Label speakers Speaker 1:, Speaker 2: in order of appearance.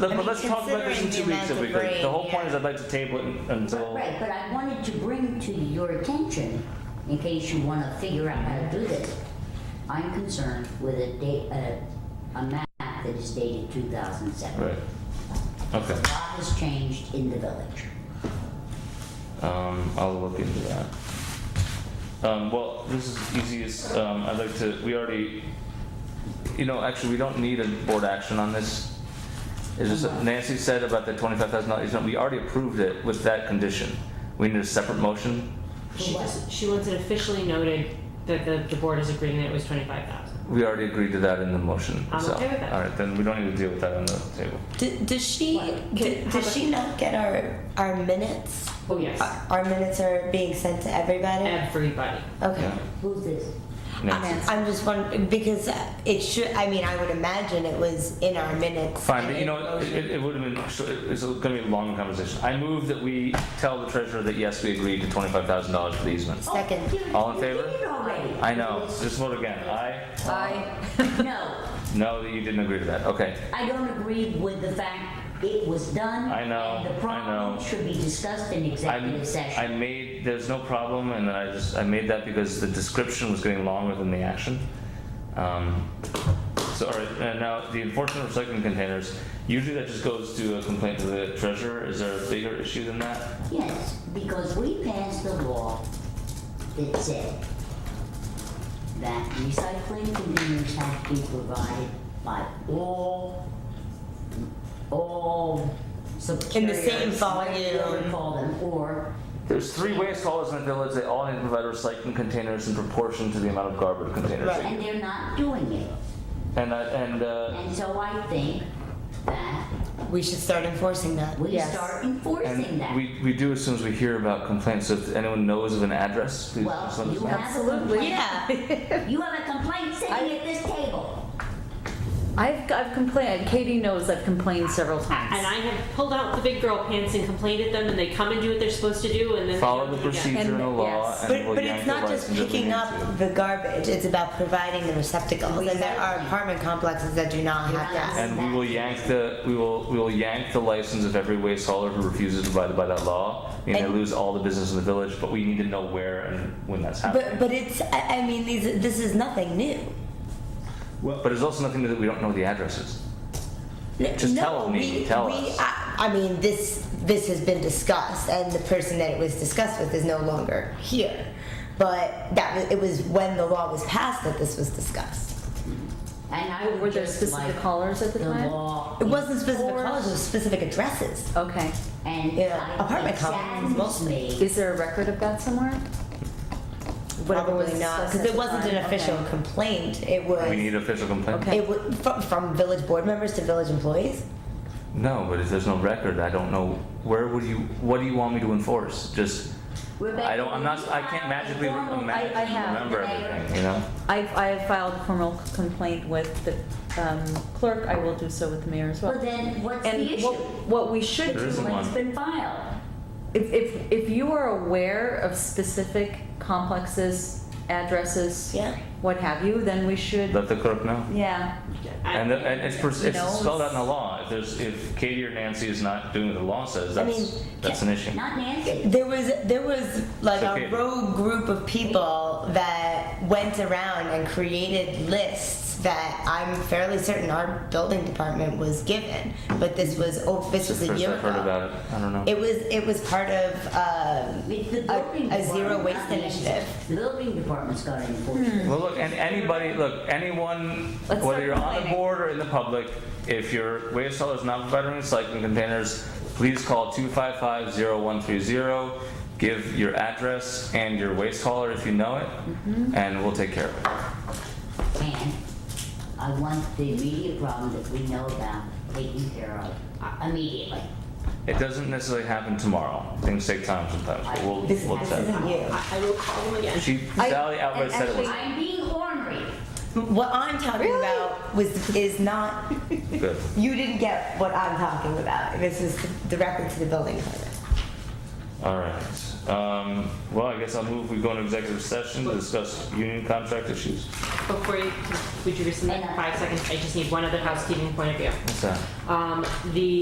Speaker 1: But
Speaker 2: I
Speaker 1: but
Speaker 2: mean,
Speaker 1: let's talk about this in two
Speaker 2: considering the
Speaker 1: weeks if
Speaker 2: amount
Speaker 1: we
Speaker 2: of
Speaker 1: could. The
Speaker 2: rain,
Speaker 1: whole point
Speaker 2: yeah.
Speaker 1: is I'd like to table it until,
Speaker 3: Right, but I wanted to bring to your attention, in case you wanna figure out how to do this. I'm concerned with a date, a, a map that is dated two thousand seven.
Speaker 1: right.
Speaker 3: A
Speaker 1: Okay,
Speaker 3: lot has changed in the village.
Speaker 1: um, I'll look into that. Um, well, this is easiest, um, I'd like to, we already, you know, actually, we don't need a board action on this. It's just that Nancy said about the twenty-five thousand dollars, we already approved it with that condition. We need a separate motion.
Speaker 4: She just, she wants it officially noted that the, the board is agreeing that it was twenty-five thousand.
Speaker 1: We already agreed to that in the motion
Speaker 4: I'm
Speaker 1: itself.
Speaker 4: okay with that.
Speaker 1: All right, then we don't need to deal with that on the table.
Speaker 2: D- Does she,
Speaker 3: What?
Speaker 2: d-
Speaker 4: How
Speaker 2: does
Speaker 4: about-
Speaker 2: she not get our, our minutes?
Speaker 4: Oh, yes.
Speaker 3: Uh,
Speaker 2: Our- Our minutes are being sent to everybody?
Speaker 4: Everybody.
Speaker 2: Okay.
Speaker 1: Yeah.
Speaker 3: Who's this?
Speaker 1: Nancy.
Speaker 2: I'm just wondering, because it should, I mean, I would imagine it was in our minutes.
Speaker 1: Fine,
Speaker 2: and
Speaker 1: but you know,
Speaker 2: in
Speaker 1: what,
Speaker 2: motion.
Speaker 1: it, it would have been, so it- it's gonna be a long conversation. I move that we tell the treasurer that yes, we agreed to twenty-five thousand dollars for the easement.
Speaker 2: Second.
Speaker 3: Oh, you-
Speaker 1: All in
Speaker 3: you
Speaker 1: favor?
Speaker 3: did it already.
Speaker 1: I know, just vote again, aye?
Speaker 3: No,
Speaker 1: No, you didn't agree to that, okay.
Speaker 3: I don't agree with the fact it was done.
Speaker 1: I know,
Speaker 3: and
Speaker 1: I
Speaker 3: The problem
Speaker 1: know.
Speaker 3: should be discussed in
Speaker 1: I,
Speaker 3: executive
Speaker 1: I
Speaker 3: session.
Speaker 1: made, there's no problem, and then I just, I made that because the description was getting longer than the action. Um, so, all right, and now the enforcement of recycling containers, usually that just goes to a complaint to the treasurer. Is there a bigger issue than that?
Speaker 3: Yes, because we passed a law that said that recycling containers have to be provided by all, all subcarriers.
Speaker 2: In the same
Speaker 3: whatever you
Speaker 2: volume.
Speaker 3: Call them, or
Speaker 1: There's three waste haulers in the village. They all need to provide recycling containers in proportion to the amount of garbage containers.
Speaker 2: Right.
Speaker 3: And they're not doing it.
Speaker 1: And I, and uh,
Speaker 3: And so I think that
Speaker 2: We should start enforcing that.
Speaker 3: we
Speaker 2: Yes.
Speaker 3: start enforcing
Speaker 1: and
Speaker 3: that.
Speaker 1: we, we do as soon as we hear about complaints. So if anyone knows of an address, please
Speaker 3: Well,
Speaker 1: just let us
Speaker 3: you
Speaker 1: know.
Speaker 3: have a complaint,
Speaker 2: Yeah.
Speaker 3: you have a complaint sitting at this table.
Speaker 5: I've, I've complained, Katie knows I've complained several
Speaker 4: And
Speaker 5: times.
Speaker 4: I have pulled out the big girl pants and complained at them, and they come and do what they're supposed to do, and then. they
Speaker 1: Follow
Speaker 4: don't
Speaker 1: the
Speaker 4: do it again.
Speaker 1: procedure and the
Speaker 5: And-
Speaker 1: law,
Speaker 5: yes.
Speaker 1: and
Speaker 2: But,
Speaker 1: we'll
Speaker 2: but
Speaker 1: yank
Speaker 2: it's
Speaker 1: the
Speaker 2: not just
Speaker 1: license if we
Speaker 2: picking
Speaker 1: need
Speaker 2: up
Speaker 1: to.
Speaker 2: the garbage, it's about providing the receptacles. And there are
Speaker 3: Exactly.
Speaker 2: apartment complexes that do not have that.
Speaker 1: And we will yank the we will we will yank the license of every waste hauler who refuses to abide by that law. And, they
Speaker 2: And-
Speaker 1: lose all the business in the village. But we need to know where and when that's happening.
Speaker 2: But, but it's, I, I mean, these, this is nothing new.
Speaker 1: but there's also nothing that we don't know the addresses.
Speaker 2: N-
Speaker 1: Just
Speaker 2: no,
Speaker 1: tell me,
Speaker 2: we-
Speaker 1: tell
Speaker 2: we-
Speaker 1: us.
Speaker 2: I, I mean, this, this has been discussed and the person that it was discussed with is no longer here. But that, was- it was when the law was passed that this was discussed.
Speaker 3: And I
Speaker 5: Were
Speaker 3: would
Speaker 5: there
Speaker 3: just like
Speaker 5: specific callers at the
Speaker 3: the
Speaker 5: time?
Speaker 3: law.
Speaker 2: It wasn't specific
Speaker 3: enforced
Speaker 2: colors, it was specific addresses.
Speaker 5: Okay,
Speaker 3: And
Speaker 2: Yeah,
Speaker 3: I,
Speaker 2: apartment
Speaker 3: it
Speaker 2: complexes
Speaker 3: saddens
Speaker 2: mostly.
Speaker 3: me.
Speaker 5: is there a record of that somewhere? Whatever was
Speaker 2: Probably not,
Speaker 5: discussed
Speaker 2: because
Speaker 5: at
Speaker 2: it
Speaker 5: the
Speaker 2: wasn't an
Speaker 5: time,
Speaker 2: official
Speaker 5: okay.
Speaker 2: complaint, it was.
Speaker 1: We need official complaint.
Speaker 5: Okay.
Speaker 2: It would, from, from village board members to village employees?
Speaker 1: No, but if there's no record, I don't know where would you. What do you want me to enforce? Just
Speaker 3: Rebecca,
Speaker 1: I don't. I'm not. I can't magically
Speaker 3: you have a
Speaker 1: magically
Speaker 5: I- I have.
Speaker 1: remember everything. You know.
Speaker 5: I, I have filed a formal complaint with the um, clerk, I will do so with the mayor as well.
Speaker 3: Well, then what's the
Speaker 5: And
Speaker 3: issue?
Speaker 5: what, what we should
Speaker 1: There
Speaker 5: do,
Speaker 1: isn't one.
Speaker 3: It's been filed.
Speaker 5: if, if, if you are aware of specific complexes, addresses,
Speaker 2: Yeah.
Speaker 5: what have you, then we should,
Speaker 1: Let the clerk know.
Speaker 5: yeah,
Speaker 4: I-
Speaker 1: And, the, and it's, pers- it's
Speaker 5: No,
Speaker 1: spelled out in the
Speaker 5: it's-
Speaker 1: law. If there's if Katie or Nancy is not doing what the law says,
Speaker 2: I
Speaker 1: that's
Speaker 2: mean,
Speaker 1: that's an issue.
Speaker 3: Not Nancy.
Speaker 2: There was, there was like
Speaker 1: Okay.
Speaker 2: a rogue group of people that went around and created lists that I'm fairly certain our building department was given, but this was, oh, this
Speaker 1: It's the
Speaker 2: was a
Speaker 1: first
Speaker 2: year
Speaker 1: I've heard
Speaker 2: ago.
Speaker 1: about it. I don't know.
Speaker 2: It was, it was part of, um,
Speaker 3: It's the
Speaker 2: A-
Speaker 3: building
Speaker 2: a zero
Speaker 3: department,
Speaker 2: waste
Speaker 3: not Nancy.
Speaker 2: initiative. Hmm.
Speaker 3: The building department's got to enforce it.
Speaker 1: well, look, and anybody, look, anyone,
Speaker 5: Let's
Speaker 1: whether
Speaker 5: start
Speaker 1: you're on the
Speaker 5: complaining.
Speaker 1: board or in the public, if your waste hauler is not providing recycling containers, please call 255-0130. Give your address and your waste hauler if you know it,
Speaker 5: Mm-hmm.
Speaker 1: and we'll take care of it.
Speaker 3: And I want the immediate problem that we know about taken care of uh, immediately.
Speaker 1: It doesn't necessarily happen tomorrow. Things take time sometimes, but we'll
Speaker 2: this,
Speaker 1: we'll
Speaker 2: this
Speaker 1: check.
Speaker 2: isn't you.
Speaker 4: I will call them again.
Speaker 1: She
Speaker 5: I-
Speaker 1: Sally outright
Speaker 5: and
Speaker 1: said it was
Speaker 3: I'm being ornery.
Speaker 2: What I'm talking about was, is not,
Speaker 1: good.
Speaker 2: you didn't get what I'm talking about. This is directly to the building department.
Speaker 1: All right. Um, well, I guess I'll move, we go into executive session to discuss union contract issues.
Speaker 4: Before you, would you rescind that in five seconds? I just need one other housekeeping point of view.
Speaker 1: What's that?
Speaker 4: Um, the